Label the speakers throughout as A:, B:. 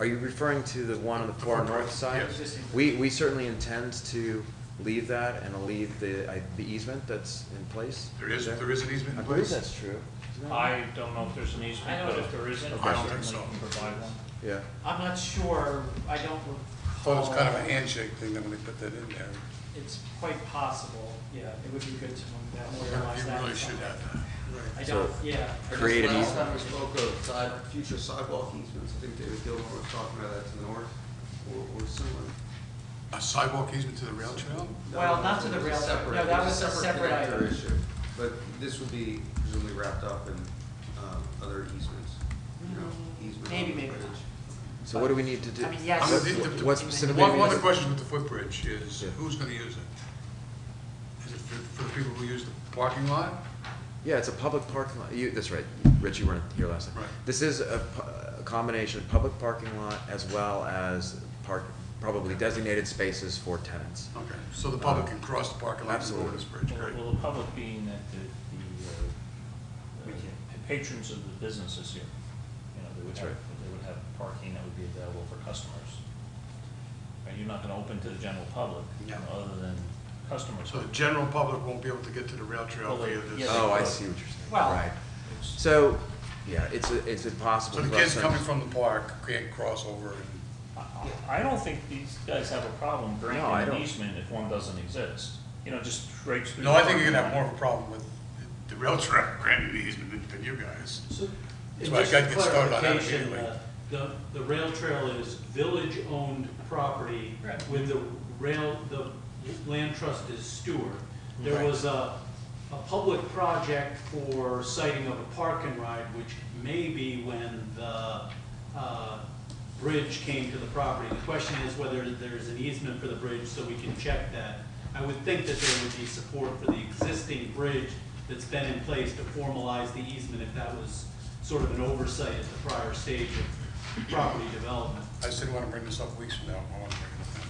A: Are you referring to the one on the far north side?
B: Yes.
A: We, we certainly intend to leave that and leave the, I- the easement that's in place.
B: There is, there is an easement
A: I
B: in
A: believe
B: place?
A: that's true. Isn't that right?
C: I don't know if there's an easement, but if there isn't,
B: I don't
C: certainly
B: think so.
C: can provide one.
A: Yeah.
D: I'm not sure, I don't
B: Thought
D: recall.
B: it was kind of a handshake thing that when they put that in there.
D: It's quite possible, yeah, it would be good to memorialize
B: You
D: that.
B: really should have that.
D: I don't, yeah,
A: Create an
E: Last time we spoke of side, future sidewalk easements, I think David Gilmore was talking about that to the north, or, or somewhere.
B: A sidewalk easement to the rail trail?
D: Well, not to the
E: It was a
D: rail trail.
E: separate-
D: No, that
E: it
D: was a separate
E: connector
D: item.
E: Issue, but this would be presumably wrapped up in, um, other easements, you know,
D: Mm-hmm.
E: easement.
D: maybe,
E: on the
D: maybe
E: bridge.
D: not.
A: So what do we need to do?
D: I mean, yes.
A: What-
B: I mean, the- the-
A: What
B: And
A: specifically?
B: One, one of the
A: we-
B: questions with the footbridge is,
A: Yeah.
B: who's gonna use it? Is it for, for the people who use the parking lot?
A: Yeah, it's a public parking lot. You, that's right. Rich, you weren't here last time.
B: Right.
A: This is a, pu- a combination of public parking lot as well as park, probably designated spaces for tenants.
B: Okay, so the public can cross the parking lot and go over
A: Absolutely.
B: this bridge, great.
C: Well, the public being that the, the uh, uh, patrons of the businesses here, you know, they would
A: That's
C: have,
A: right.
C: they would have parking that would be available for customers. And you're not gonna open to the general public, you know,
B: No.
C: other than customers.
B: So the general public won't be able to get to the rail trail
C: Well, they-
B: via this.
C: yes, they
A: Oh, I
C: could.
A: see what you're saying.
D: Well-
A: Right.
C: It's-
A: So, yeah, it's, a- it's impossible.
B: So the
A: for us
B: kids
A: to-
B: coming from the park can't cross over and.
C: I- I I don't think these guys have a problem granting
A: I
C: an
A: don't.
C: easement if one doesn't exist, you know, just straight through.
B: No,
C: the
B: I think you're
C: parking
B: gonna have
C: lot.
B: more of a problem with the rail trail granting the easement than- than you guys.
F: So,
B: That's
F: and
B: why I
F: just for
B: gotta get started on that
F: clarification,
B: immediately.
F: uh, the, the rail trail is village-owned property
C: Right.
F: with the rail, the land trust is steward. There
B: Right.
F: was a, a public project for siting of a park and ride, which may be when the, uh, bridge came to the property. The question is whether there's an easement for the bridge, so we can check that. I would think that there would be support for the existing bridge that's been in place to formalize the easement if that was sort of an oversight at the prior stage of property development.
B: I just didn't wanna bring this up weeks from now, I wanna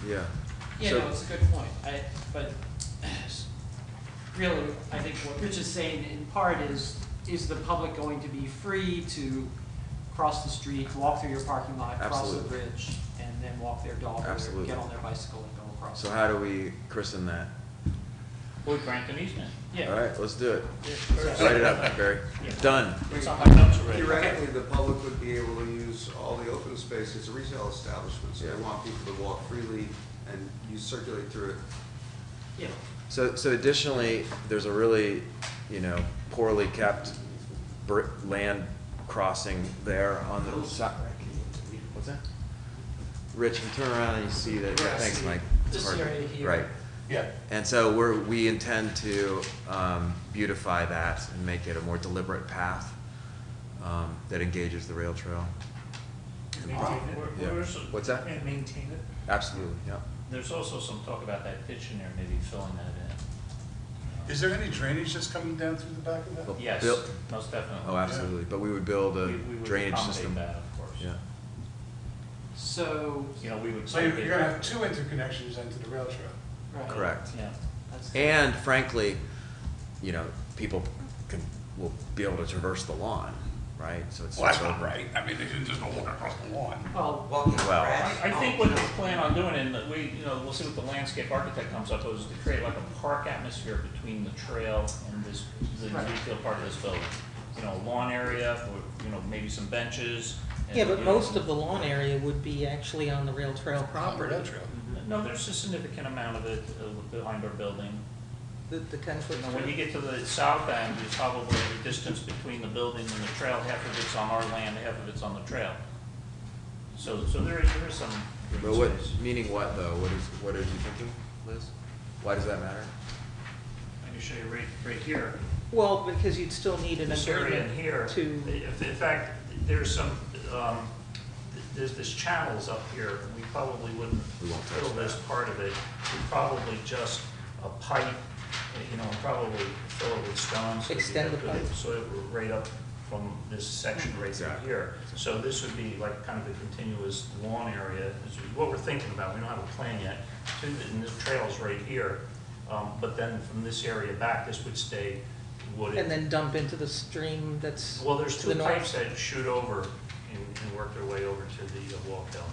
B: bring it up. now.
A: Yeah.
D: Yeah,
A: So-
D: no, it's a good point, I, but really, I think what Rich is saying in part is, is the public going to be free to cross the street, walk through your parking lot, cross the
A: Absolutely.
D: bridge, and then walk their dog, or
A: Absolutely.
D: get on their bicycle and go across?
A: So how do we christen that?
C: Well, grant an easement.
A: All
D: Yeah.
A: right, let's do it.
D: Yeah.
A: Write it up, Barry.
C: Yeah.
A: Done.
C: It's on my notes already.
E: Theoretically, the public would be able to use all the open space, it's a retail establishment, so
A: Yeah.
E: they want people to walk freely and you circulate through it.
D: Yeah.
A: So, so additionally, there's a really, you know, poorly kept br- land crossing there on the side. What's that? Rich, you turn around and you see that, yeah,
D: Yeah, I
A: thanks,
D: see.
A: Mike. It's
D: This
A: hard to-
D: area here.
A: Right.
B: Yeah,
A: And so we're, we intend to um, beautify that and make it a more deliberate path um, that engages the rail trail.
C: Maintain it. Where-
A: Yeah.
C: where's the-
A: What's that?
C: And maintain it.
A: Absolutely, yeah.
C: There's also some talk about that ditch in there, maybe filling that
B: is there any drainage that's coming down through the back of that?
C: in. Yes,
A: Bill-
C: most definitely.
A: Oh, absolutely. But we would build a
C: We- we would
A: drainage
C: accommodate
A: system.
C: that, of course.
A: Yeah.
D: So,
C: You know, we would.
B: So you're
C: segregate-
B: you're gonna have two interconnections into the rail trail.
D: right.
A: Correct.
C: Yeah.
D: That's-
A: And frankly, you know, people can, will be able to traverse the lawn, right? So it's.
B: Well, that's not right, I mean, they didn't just walk across the lawn.
D: Well,
E: Walking
A: Well,
C: I I think what they plan on doing, and that we, you know, we'll see what the landscape architect comes up with, is to create like a park atmosphere between the trail and this, the
D: Right.
C: retail part of this building. You know, lawn area, or, you know, maybe some benches. and,
G: Yeah,
C: you
G: but
C: know,
G: most of the lawn area would be actually on the rail trail
B: On the
G: property.
B: rail trail.
C: No, there's a significant amount of it uh, behind our building.
G: The, the ten foot.
C: You know, when you get to the south end, it's probably the distance between the building and the trail, half of it's on our land, half of it's on the trail. So, so there is, there is some
A: But
C: green
A: what,
C: space.
A: meaning what though? What is, what are you thinking, Liz? Why does that matter?
C: Let me show you right, right here.
G: Well, because you'd still need an
C: This area in
G: agreement
C: here,
G: to-
C: if, in fact, there's some, um, th- there's this channels up here, we probably wouldn't
A: We won't touch
C: fill this part of it. We'd probably just a pipe, you know, probably fill it with stones. so that you
G: Extend the
C: could-
G: pipe.
C: So it were right up from this section right through
A: Exactly.
C: here. So this would be like kind of a continuous lawn area, is what we're thinking about, we don't have a plan yet. So the- And the trail's right here, um, but then from this area back, this would stay wooded.
G: and then dump into the stream that's.
C: Well, there's
G: to
C: two
G: the north.
C: pipes that shoot over and, and work their way over to the uh, Walk Hill.